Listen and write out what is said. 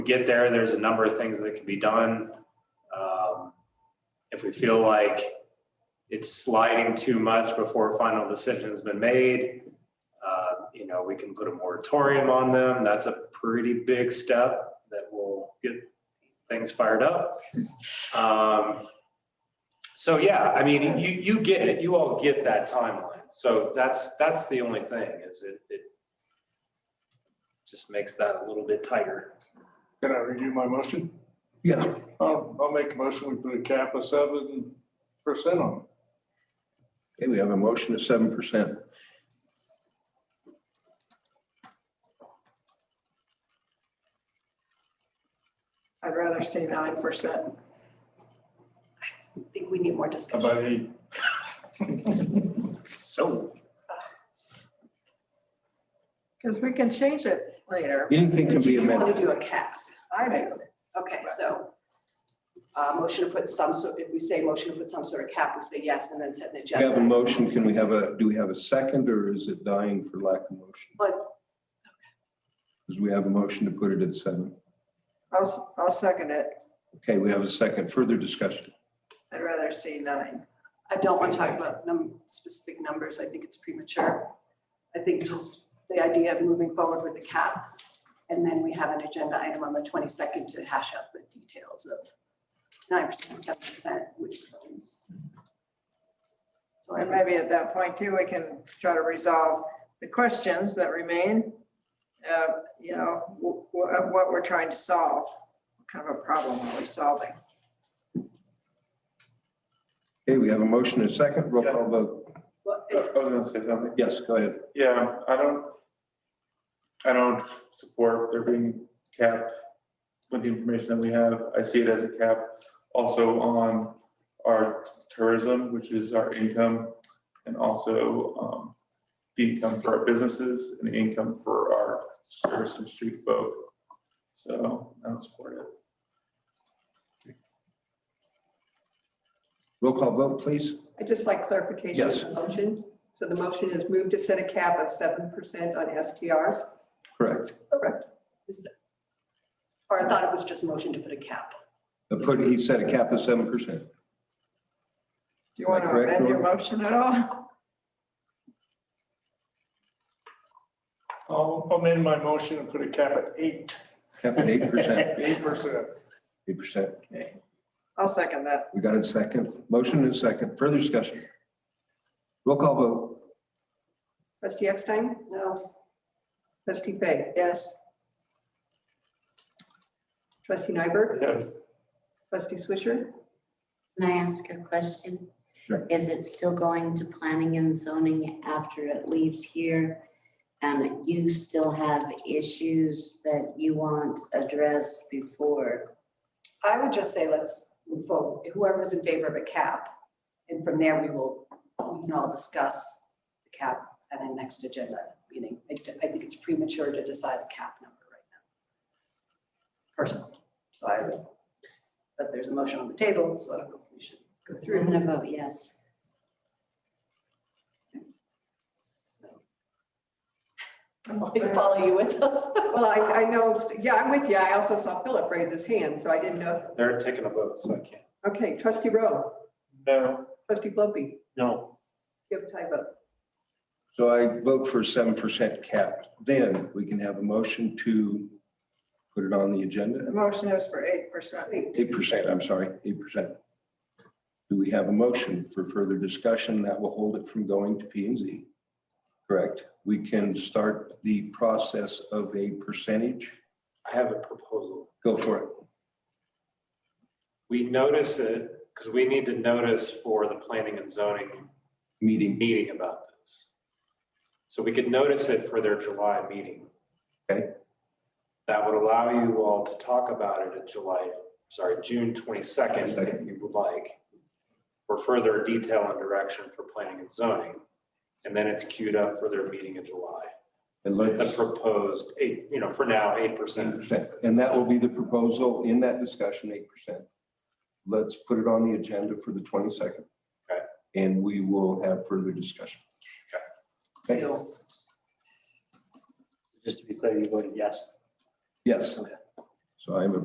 get there, there's a number of things that can be done. Um, If we feel like it's sliding too much before a final decision's been made, uh, you know, we can put a moratorium on them. That's a pretty big step that will get things fired up. Um, So yeah, I mean, you, you get it. You all get that timeline. So that's, that's the only thing is it, it just makes that a little bit tighter. Can I review my motion? Yeah, I'll, I'll make a motion, we put a cap of seven percent on okay, we have a motion of seven percent. I'd rather say nine percent. I think we need more it. How discussion. about eight? So. Because we can change it later. Anything can be You want amended. to do a cap. I do. Okay, so uh, motion to put some sort, if we say motion to put some sort of cap, we say yes and then set an We agenda. have a motion, can we have a, do we have a second or is it dying for lack of motion? But Because we have a motion to put it at seven. I'll, s- I'll second it. Okay, we have a second, further discussion. I'd rather see nine. I don't want to talk about num, specific numbers. I think it's premature. I think just the idea of moving forward with the cap. And then we have an agenda item on the twenty-second to hash out the details of nine percent, seven percent, which ones. So And I'm maybe at that point too, we can try to resolve the questions that remain. Uh, You know, wh- wh- of what we're trying to solve, what kind of a problem are we solving? Okay, we have a motion and a second, roll call vote. Well, I it's- was gonna say something. Yes, go ahead. Yeah, I don't, I don't support there being cap with the information that we have. I see it as a cap also on our tourism, which is our income, and also um, the income for our businesses and the income for our service and street folk. So I don't support it. Roll call vote, please. I'd just like clarification Yes. on the motion. So the motion is move to set a cap of seven percent on STRs. Correct. Or I thought it was just motion to put a cap. The put, he said a cap of seven percent. Do you want to Am I correct, amend your Laura? motion at all? I'll amend my motion and put a cap at eight. Cap at eight percent, Eight percent. eight percent. I'll second that. We got a second, motion and a second, further discussion. Roll call vote. Trustee Epstein? No, Trustee Fay? Yes. Trustee Nyberg? Yes. Trustee Swisher? Can I ask a question? Sure. Is it still going to planning and zoning after it leaves here? And you still have issues that you want addressed before? I would just say let's move forward. Whoever's in favor of a cap. And from there, we will, we can all discuss the cap at our next agenda meeting. I d- I think it's premature to decide a cap number right now. Personally, so I would, but there's a motion on the table, so I don't know if we should go I'm through. gonna vote yes. So. I'm going to follow you with us. Well, I, I know, yeah, I'm with you. I also saw Philip raise his hand, so I didn't know. They're taking a vote, so I can't. Okay, trustee Rowe, No, trustee Globe, No. you have a tie vote. So I vote for seven percent cap. Then we can have a motion to put it on the The agenda. motion is for eight percent. Eight percent, I'm sorry, eight percent. Do we have a motion for further discussion that will hold it from going to P and Z? Correct. We can start the process of a percentage. I have a proposal. Go for it. We notice it, because we need to notice for the planning and zoning Meeting. meeting about this. So we could notice it for their July meeting. Okay. That would allow you all to talk about it at July, sorry, June twenty-second, if you would like, for further detail and direction for planning and zoning. And then it's queued up for their meeting in July. And With let's. the proposed eight, you know, for now, eight percent. 10%. And that will be the proposal in that discussion, eight percent. Let's put it on the agenda for the twenty-second. Okay. And we will have further discussion. Okay. Just to be clear, you voted yes. Yes. So I have a